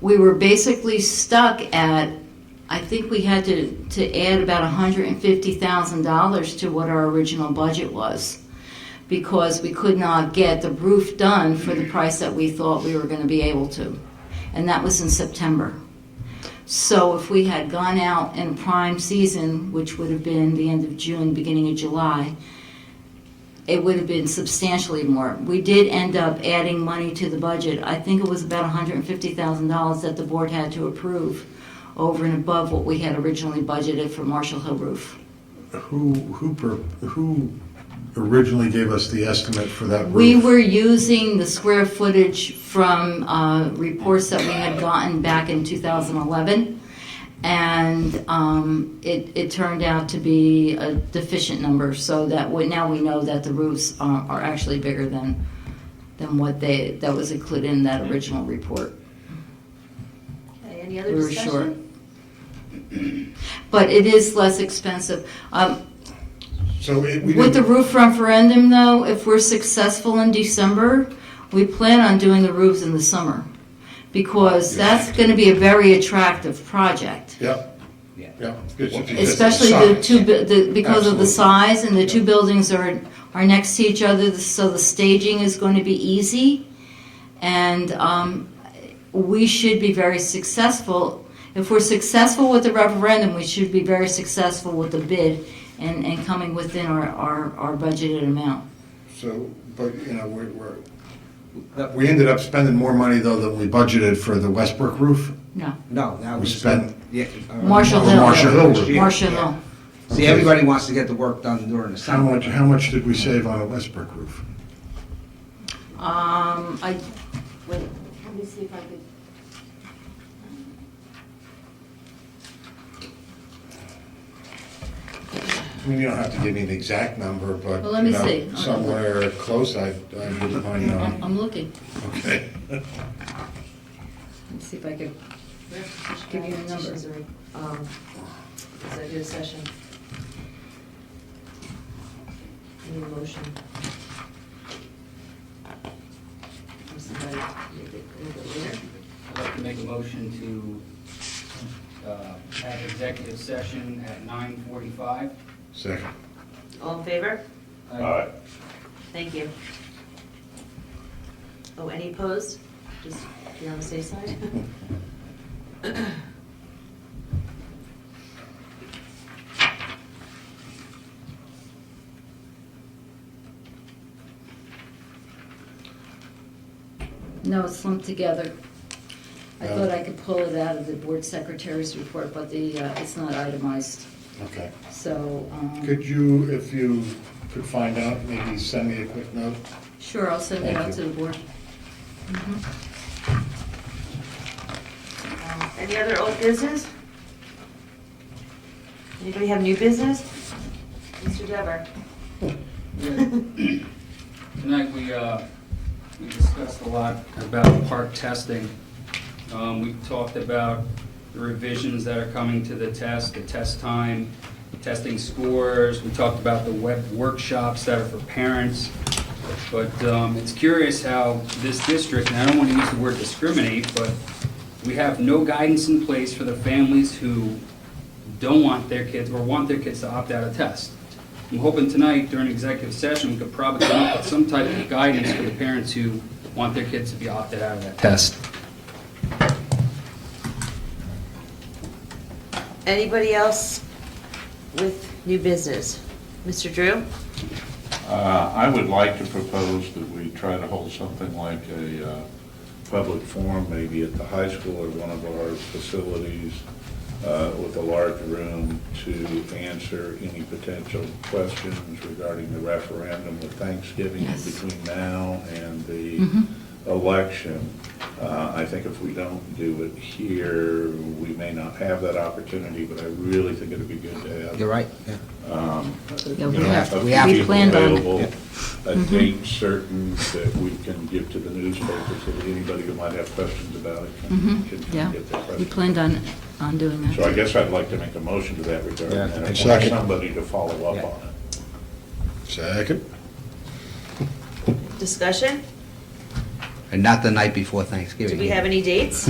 we were basically stuck at, I think we had to, to add about $150,000 to what our original budget was because we could not get the roof done for the price that we thought we were going to be able to. And that was in September. So if we had gone out in prime season, which would have been the end of June, beginning of July, it would have been substantially more. We did end up adding money to the budget. I think it was about $150,000 that the board had to approve over and above what we had originally budgeted for Marshall Hill Roof. Who, who, per- who originally gave us the estimate for that roof? We were using the square footage from uh, reports that we had gotten back in 2011, and um, it it turned out to be a deficient number, so that we- now we know that the roofs are are actually bigger than, than what they, that was included in that original report. Okay, any We other were short. discussion? But it is less expensive. Um, So it, we With the didn't, roof referendum, though, if we're successful in December, we plan on doing the roofs in the summer. Because that's gonna be a very attractive project. yep, Yeah. yep. It's- it's- it's Especially the size. two, bu- the, because of the Absolutely. size and the two buildings are, are next to each other, so the staging is going to be easy. And, um, we should be very successful. If we're successful with the referendum, we should be very successful with the bid and, and coming within our, our, our budgeted amount. So, but, you know, we're, we're, That- we ended up spending more money though than we budgeted for the Westbrook roof. No, No, that We was. spent- yeah, uh, Marshall Hill. Marshall Hill. Last year. Marshall Hill. See, everybody wants to get the work done during the How summer. much, how much did we save on a Westbrook roof? Um, I, Wait, let me see if I could. I mean, you don't have to give me an exact number, but, Well, let me you know, see. somewhere close, I, I wouldn't mind I'm knowing. I'm looking. Okay. Let's see if I could. Give Give you you Um, the a number. number. Executive session. Need a motion. Or somebody make it a little bit later. I'd like to make a motion to uh, have executive session at 9:45. Second. All in favor? All Thank you. Oh, any opposed? Just be on the safe side. No, it's lumped together. I Yeah. thought I could pull it out of the board secretary's report, but the, uh, it's not itemized, Okay. so. um, Could you, if you could find out, maybe send me a quick note? Sure, I'll send it Thank out you. to the board. Mm-hmm. Um, Any other old business? Anybody have new business? Mr. Dever? Yeah. Tonight, we, uh, we discussed a lot about park testing. Um, We talked about the revisions that are coming to the test, the test time, testing scores. We talked about the web workshops that are for parents. But um, it's curious how this district, and I don't want to use the word discriminate, but we have no guidance in place for the families who don't want their kids or want their kids to opt out of test. I'm hoping tonight during executive session, we could probably come up with some type of guidance for the parents who want their kids to be opted out of that test. Anybody else with new business? Mr. Drew? Uh, I would like to propose that we try to hold something like a uh, public forum, maybe at the high school or one of our facilities uh, with a large room to answer any potential questions regarding the referendum with Thanksgiving Yes. between now and the election. Uh, I think if we don't do it here, we may not have that opportunity, but I really think it'd be good to have You're right, yeah. Yeah, we you know, have- of we have- we people planned on- Mm-hmm. available, A date certain that we can give to the newspaper so that anybody who might have questions about it can Mhm, can yeah. get their We questions. planned on, on doing So I that. guess I'd like to make a motion to that regard Yeah. and I want Second. somebody to follow up Yeah. on it. Second. Discussion? And not the night before Thanksgiving. Do we have any dates?